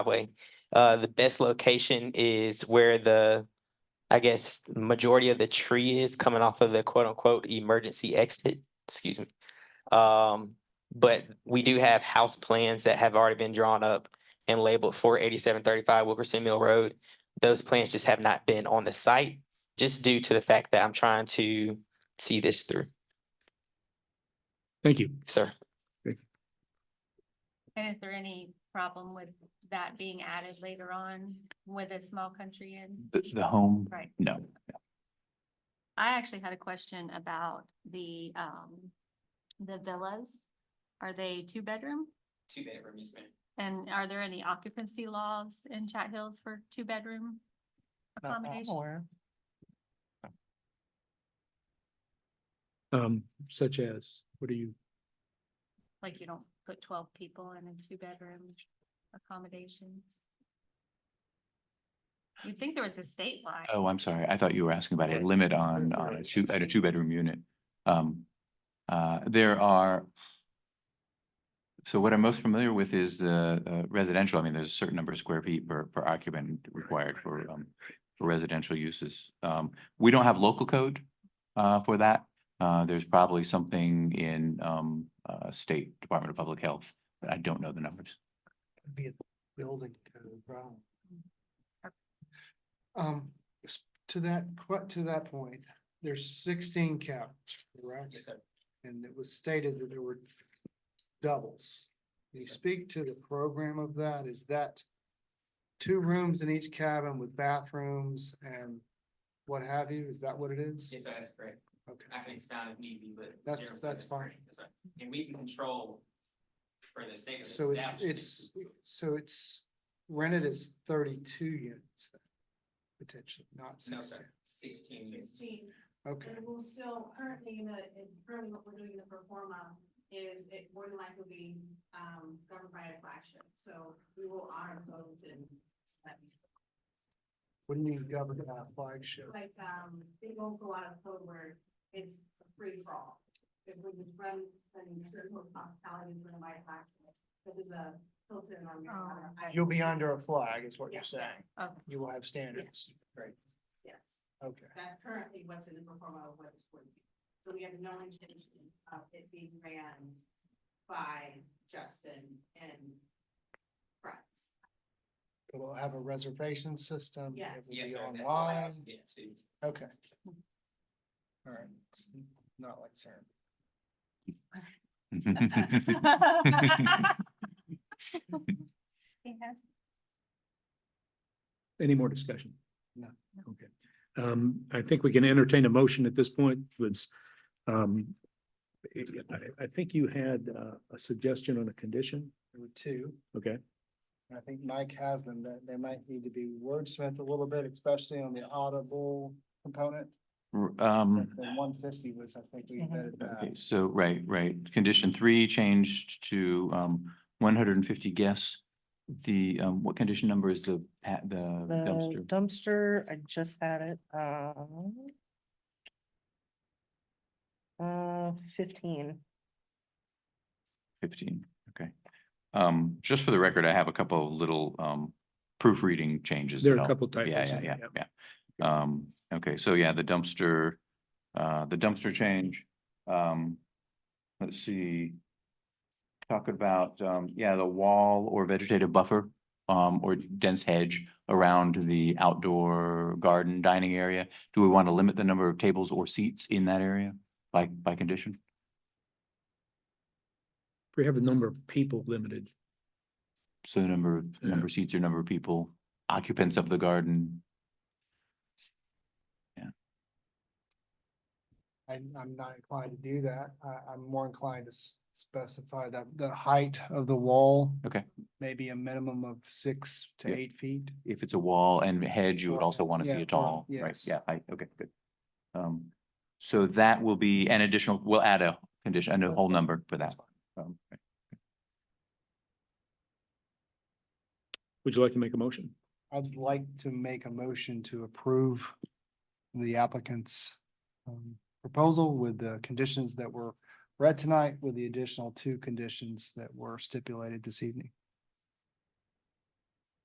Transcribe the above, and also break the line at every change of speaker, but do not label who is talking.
highway. Uh, the best location is where the, I guess, majority of the tree is coming off of the quote unquote emergency exit, excuse me. Um, but we do have house plans that have already been drawn up and labeled for eighty-seven thirty-five Wilkerson Mill Road. Those plans just have not been on the site, just due to the fact that I'm trying to see this through,
Thank you.
sir.
And is there any problem with that being added later on with a small country inn?
The, the home,
Right.
no.
I actually had a question about the, um, the villas. Are they two bedroom?
Two bedroom easement.
And are there any occupancy laws in Chat Hills for two bedroom? Accommodation?
Um, such as, what do you,
Like you don't put twelve people in a two bedroom accommodation? You'd think there was a statewide.
Oh, I'm sorry. I thought you were asking about a limit on, on a two, at a two-bedroom unit. Um, uh, there are. So what I'm most familiar with is the uh, residential. I mean, there's a certain number of square feet per, per occupant required for, um, for residential uses. Um, we don't have local code, uh, for that. Uh, there's probably something in, um, uh, State Department of Public Health, but I don't know the numbers.
be a building code problem.
Okay.
Um, s- to that, que- to that point, there's sixteen cabins, correct? And it was stated that there were doubles. Can you speak to the program of that? Is that two rooms in each cabin with bathrooms and what have you? Is that what it is?
Yes, sir, that's correct.
Okay.
I can expound if need be, but.
That's-
generally,
that's fine.
correct. Yes, sir. And we can control for the sake of the
So it-
establishment.
it's, so it's rented as thirty-two units then, potentially, not
No,
sixteen.
sir, sixteen units.
Sixteen,
Okay.
and we'll still currently in the, in currently what we're doing in the performa is it more than likely be, um, governed by a flagship. So we will honor codes and um,
Wouldn't you govern that flagship?
like, um, it won't go out of code where it's a free for all. If we just run, then certain hospitality run by a flagship, but there's a filter on your. on our-
You'll be under a flag is what you're
Yeah.
saying.
Okay.
You will have standards. Right.
Yes,
Okay.
that's currently what's in the performa of what it's going to be. So we have no intention of it being ran by Justin and friends.
It will have a reservation system.
Yes.
It will
Yes,
be
sir. that
online.
allows it to-
Okay. All right. It's Not like CERN.
Yes.
any more discussion?
No.
Okay. Um, I think we can entertain a motion at this point, was, um, I, I think you had, uh, a suggestion on a condition,
There were two.
okay?
and I think Mike has them, that they might need to be wordsmithed a little bit, especially on the audible component.
Um.
The one fifty was, I think, we uh, vetted
Okay,
that.
so, right, right. Condition three changed to um one hundred and fifty guests. The um, what condition number is the pa- the
The
dumpster?
dumpster, I just had it, um. Uh, fifteen.
Fifteen, okay. Um, just for the record, I have a couple of little um proofreading changes.
There are
that
a
I'll-
couple typos.
Yeah, yeah,
in
yeah,
there,
yeah. Um, okay, so yeah, the dumpster, uh, the dumpster change, um, let's see. Talk about, um, yeah, the wall or vegetative buffer, um, or dense hedge around the outdoor garden dining area. Do we want to limit the number of tables or seats in that area by, by condition?
We have a number of people limited.
So the number of,
Yeah.
number of seats or number of people, occupants of the garden,
I, I'm not inclined to do that. I, I'm more inclined to s- specify that the height of the wall.
Okay.
Maybe a minimum of six to
Yeah.
eight feet.
if it's a wall and hedge, you would
Or-
also want to
yeah,
see
or-
a tall, right?
yes.
Yeah, I, okay, good. Um, so that will be an additional, we'll add a condition, a whole number for
That's
that.
fine.
Um, right.
Would you like to make a motion?
I'd like to make a motion to approve the applicant's um, proposal with the conditions that were read tonight with the additional two conditions that were stipulated this evening.